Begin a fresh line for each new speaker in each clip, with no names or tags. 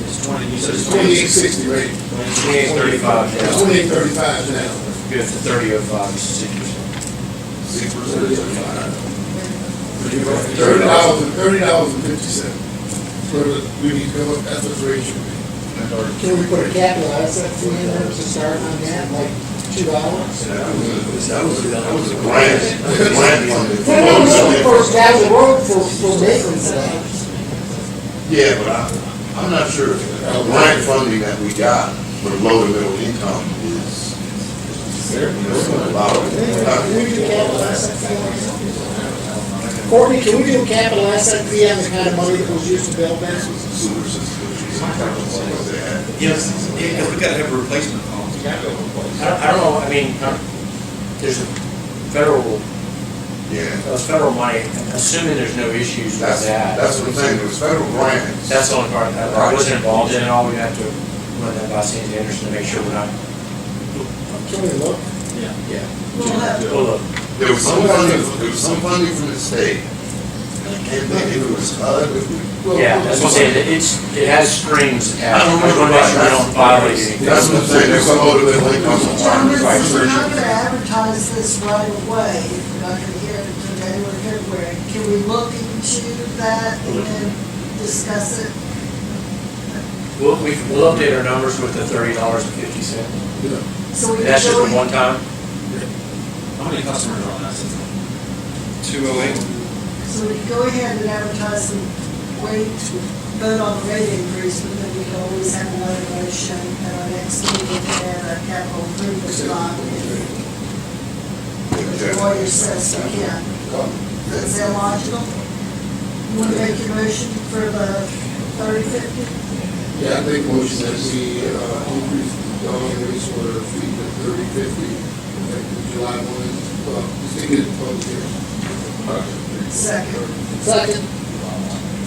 twenty, you said it's
Twenty-eight sixty rate.
twenty-eight thirty-five now,
Twenty-eight thirty-five now.
good to thirty oh five, six percent.
Six percent is Thirty dollars, thirty dollars and fifty cents. But we need to come up, that's what the rate should be.
Can we put a cap on that, set two minutes to start on that, like two hours? No, no, no, for down the road, for, for maintenance, uh,
Yeah, but I, I'm not sure, if the grant funding that we got for low to middle income is, is a lot
can
of,
we do a capital asset fee on that? Courtney, can we do a capital asset fee on the kind of money that was used to build this?
sewer systems.
Yes, because we gotta have a replacement cost.
I don't, I don't know, I mean, uh, there's a federal,
Yeah,
uh, federal money, assuming there's no issues with
that's,
that.
that's what I'm saying, there's federal grants.
That's the only part, that I wasn't involved in at all, we have to run that by Sandy Anderson to make sure we're not,
Can we look?
yeah.
We'll have-
Well, look,
There was some funding, there was some funding from the state, and I can't think if it was HUD, if it was.
Yeah, that's what I'm saying, it's, it has strings
I
attached. I
don't
just
remember.
wanna make sure we don't violate anything.
That's what I'm saying, there's some low to middle
John,
income requirements, right?
listen, we're not gonna advertise this right away, if we're not gonna hear it until January, February. Can we look into that and discuss it?
We'll, we- we'll update our numbers with the thirty dollars and fifty cent.
So we
That's just
really-
a one time.
How many customers are on that system? Two oh eight.
So we can go ahead and advertise and wait to vote on the rate increase, but then we can always have another motion at our next meeting and our capital improvement bond. if The lawyer says we can. Is that logical? You want to make your motion for the thirty fifty?
Yeah, I think motion that we, uh, increase the dollar rates for the fee to thirty fifty, effective July one, uh, stick it in public hearing.
Second.
Second.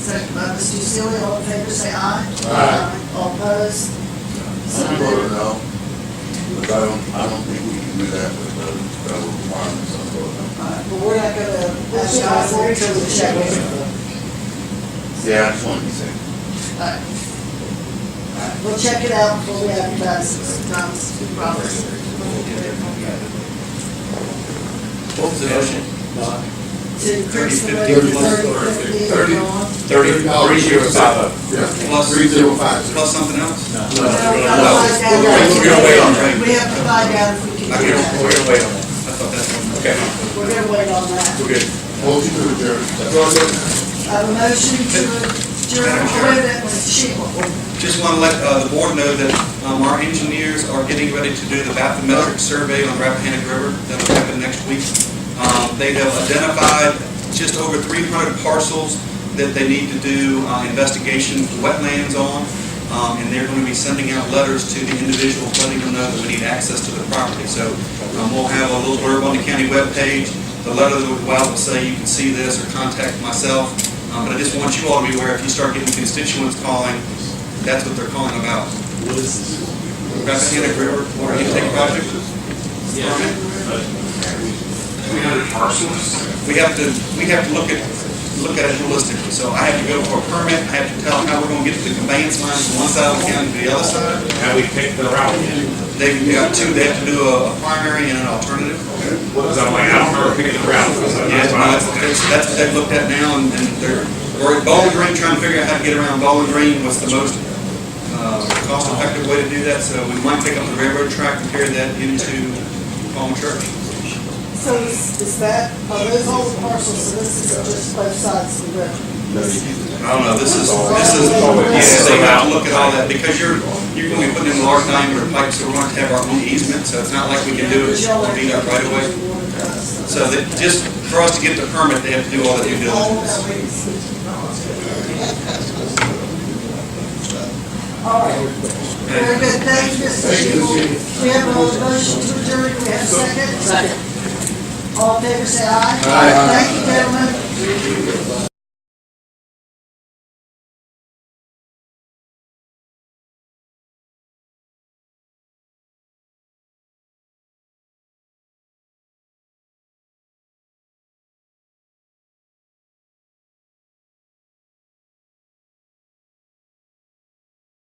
Second by Mr. Sealy, all in favor, say aye.
Aye.
All opposed? So moved.
I voted no, but I don't, I don't think we can do that with the federal requirements, I voted no.
All right, But we're not gonna
We'll see how it
advertise
works,
until
and
the
we'll check
check.
it.
Yeah, I just wanted to say.
Alright. We'll check it out before we advertise, it's not, it's too
What was the
oh
motion?
To increase the rate
Thirty,
to
fifty,
thirty
thirty.
fifty and on.
Thirty, three zero five oh.
Yeah,
Plus-
three zero five zero.
Plus something else?
We have to
We're gonna- we're gonna wait on
find out,
that.
we have to find out if we can
We're
do
gonna,
that.
we're gonna wait on that.
I thought that's one.
Okay,
We're gonna wait on that.
we're good.
Motion to adjourn. That's all I got.
I have a motion to adjourn,
Madam
oh,
Chair.
wait a minute, Mr. Sheila.
Just want to let uh, the board know that um, our engineers are getting ready to do the bathymetric survey on Rappahannock River that'll happen next week. Um, They have identified just over 300 parcels that they need to do uh, investigation of wetlands on, um, and they're going to be sending out letters to the individuals letting them know that we need access to the property. So um, we'll have a little blurb on the county webpage, the letter that will go out will say, you can see this, or contact myself. Um, But I just want you all to be aware, if you start getting constituents calling, that's what they're calling about. Rappahannock River Water Intake Project? We have to, we have to look at, look at it holistically. So I have to go for a permit, I have to tell them how we're gonna get to the conveyance line from one side of the county to the other side.
And we picked the route.
They, we got two, they have to do a a primary and an alternative.
So I'm like, I don't remember picking the route. So
Yeah,
that's
no,
why I
that's, that's- that's what they've looked at now, and and they're, we're at Bowling Green, trying to figure out how to get around Bowling Green, what's the most uh, cost-effective way to do that, so we might pick up the railroad track and carry that into Palm Church.
So is, is that, are those all the parcels, so this is just both sides of the river?
I don't know, this is, this is, yeah, they have to look at all that, because you're, you're gonna be putting in large diameter pipes, so we're going to have our own easement, so it's not like we can do it, on VDOT right away. So that, just for us to get the permit, they have to do all the due
All of
diligence.
that is- All right. Very good, thank you, Mr. Shebel. We have a motion to adjourn, we have a second? Second. All in favor, say aye. Aye. Thank you, gentlemen.